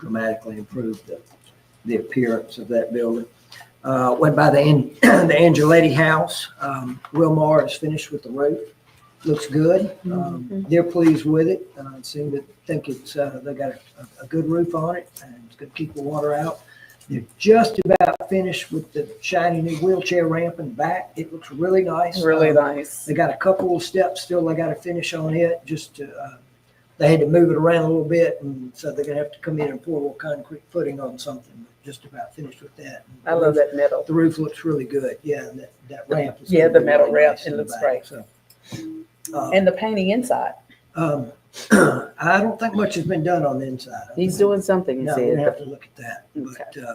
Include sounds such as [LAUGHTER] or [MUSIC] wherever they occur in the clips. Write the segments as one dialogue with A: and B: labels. A: dramatically improve the, the appearance of that building. Uh, went by the, An- [CLEARS THROAT] the Angeletti House. Um, Wilmar is finished with the roof. Looks good. Um, they're pleased with it. Uh, seem to think it's, uh, they got a, a good roof on it and it's gonna keep the water out. They're just about finished with the shiny new wheelchair ramp in the back. It looks really nice.
B: Really
A: Um,
B: nice.
A: they got a couple of steps still they got to finish on it just to, uh, they had to move it around a little bit and so they're gonna have to come in and pour a little concrete footing on something. Just about finished with that.
B: I love that metal.
A: The roof looks really good. Yeah, and that, that ramp. is
B: Yeah,
A: gonna
B: the
A: be
B: metal
A: really
B: ramp,
A: nice
B: it
A: in the
B: looks
A: back,
B: great.
A: so. Uh,
B: And the painting inside.
A: um, [CLEARS THROAT] I don't think much has been done on the inside. I
C: He's
A: think-
C: doing something, he
A: No, we
C: said.
A: have to look at that. But
C: Okay.
A: uh,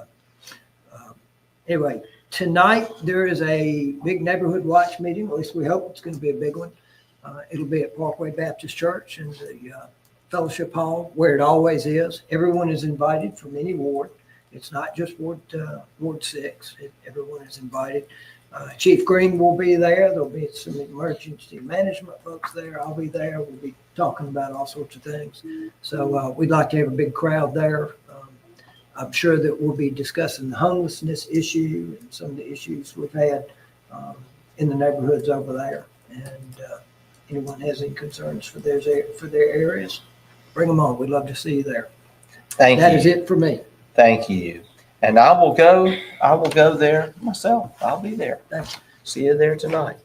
A: um, anyway, tonight, there is a big neighborhood watch meeting, at least we hope it's going to be a big one. Uh, It'll be at Parkway Baptist Church in the uh, Fellowship Hall, where it always is. Everyone is invited from any ward. It's not just Ward, uh, Ward Six. It- Everyone is invited. Uh, Chief Green will be there. There'll be some emergency management folks there. I'll be there. We'll be talking about all sorts of things. So uh, we'd like to have a big crowd there. Um, I'm sure that we'll be discussing the homelessness issue and some of the issues we've had um, in the neighborhoods over there. And uh, anyone has any concerns for theirs, for their areas, bring them on. We'd love to see you there.
D: Thank
A: That
D: you.
A: is it for me.
D: Thank you. And I will go, I will go there myself. I'll be there.
A: Thank
D: See you there tonight.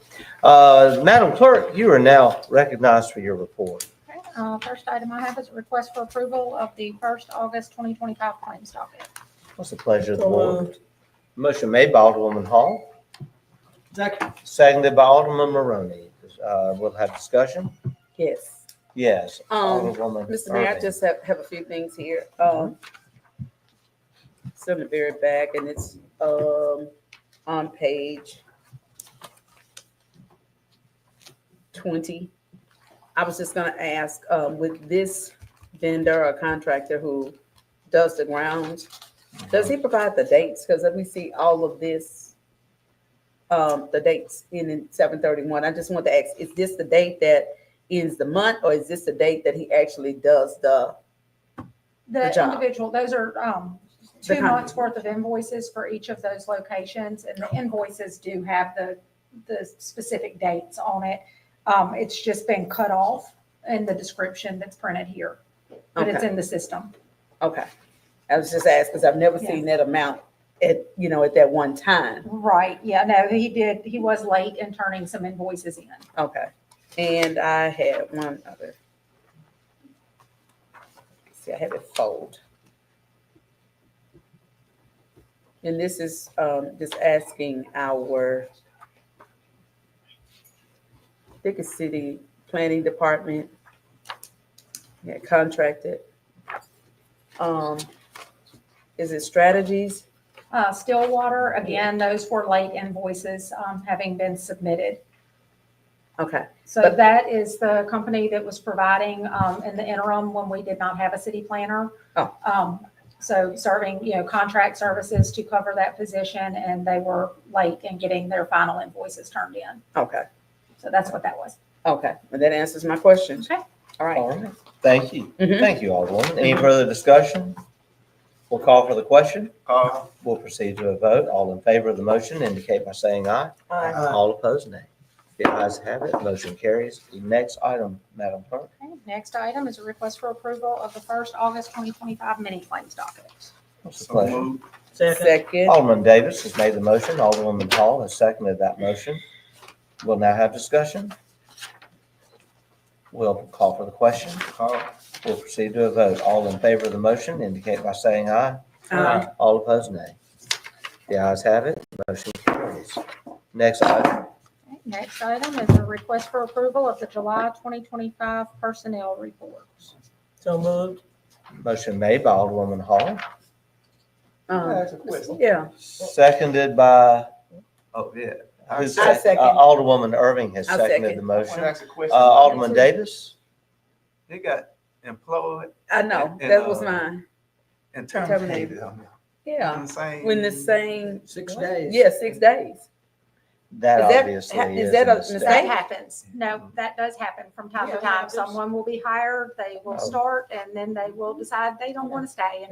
D: Uh, Madam Clerk, you are now recognized for your report.
E: Okay, uh, First item I have is a request for approval of the first August 2025 claims docket.
D: What's the pleasure of the
B: So
D: board? Motion made by Alderwoman Hall,
A: Second.
D: seconded by Alderman Maroney. Uh, we'll have discussion.
C: Yes.
D: Yes.
C: Um,
D: Alderwoman
C: Mr. Mayor, I
D: Maroney.
C: just have, have a few things here. Um, it's on the very back and it's, um, on page twenty. I was just gonna ask, um, with this vendor or contractor who does the grounds, does he provide the dates? Because let me see all of this, um, the dates in seven thirty-one. I just want to ask, is this the date that ends the month, or is this the date that he actually does the? Good
E: The
C: job.
E: individual, those are um,
C: The
E: two
C: con-
E: months' worth of invoices for each of those locations, and the invoices do have the, the specific dates on it. Um, It's just been cut off in the description that's printed here, but it's
C: Okay,
E: in the system.
C: okay. I was just asking, because I've never
E: Yeah.
C: seen that amount at, you know, at that one time.
E: Right, yeah, no, he did, he was late in turning some invoices in.
C: Okay. And I had one other. See, I have it fold. And this is, um, just asking our, I think it's city planning department. Yeah, contracted. Um, is it strategies?
E: Uh, Stillwater, again, those were late invoices um, having been submitted.
C: Okay,
E: So
C: But-
E: that is the company that was providing um, in the interim when we did not have a city planner.
C: Oh.
E: Um, So serving, you know, contract services to cover that position, and they were late in getting their final invoices turned in.
C: okay,
E: So that's what that was.
C: okay. And that answers my question.
E: Okay.
C: All
D: All
C: right.
D: right. Thank you.
C: Mhm.
D: Thank you, Alderwoman. Any further discussion? We'll call for the question. We'll proceed to a vote. All in favor of the motion indicate by saying aye.
A: Aye.
D: All opposed, nay. The ayes have it, motion carries. The next item, Madam Clerk.
E: Okay, Next item is a request for approval of the first August 2025 mini claims docket.
D: What's the pleasure?
C: Second.
D: Alderman Davis has made the motion. Alderwoman Hall has seconded that motion. We'll now have discussion. We'll call for the question. We'll proceed to a vote. All in favor of the motion indicate by saying aye.
C: Um,
D: All opposed, nay. The ayes have it, motion carries. Next item,
E: Okay, Next item is a request for approval of the July 2025 personnel reports.
B: So moved.
D: motion made by Alderwoman Hall,
C: um,
F: That's a question.
C: Yeah,
D: seconded by,
F: Oh, yeah. I
D: who's
C: I
D: that?
C: second.
D: Uh, Alderwoman Irving has
C: I
D: seconded
C: second.
D: the
F: I wanna
D: motion.
F: ask a
D: Uh,
F: question.
D: Alderman Davis,
F: They got employed
C: I know,
F: And- and,
C: that was
F: uh,
C: mine.
F: and
C: Terminated.
F: terminated on
C: Yeah,
F: the same.
C: when the same,
A: Six days.
C: yeah, six days.
D: that
C: Is that-
D: obviously
C: ha- is
D: is
C: that
D: a
C: a
D: mistake.
C: mistake?
E: That happens. No, that does happen from time
C: Yeah,
E: to
C: it
E: time.
C: happens.
E: Someone will be hired, they
D: Oh.
E: will start, and then they will decide they don't want to stay, and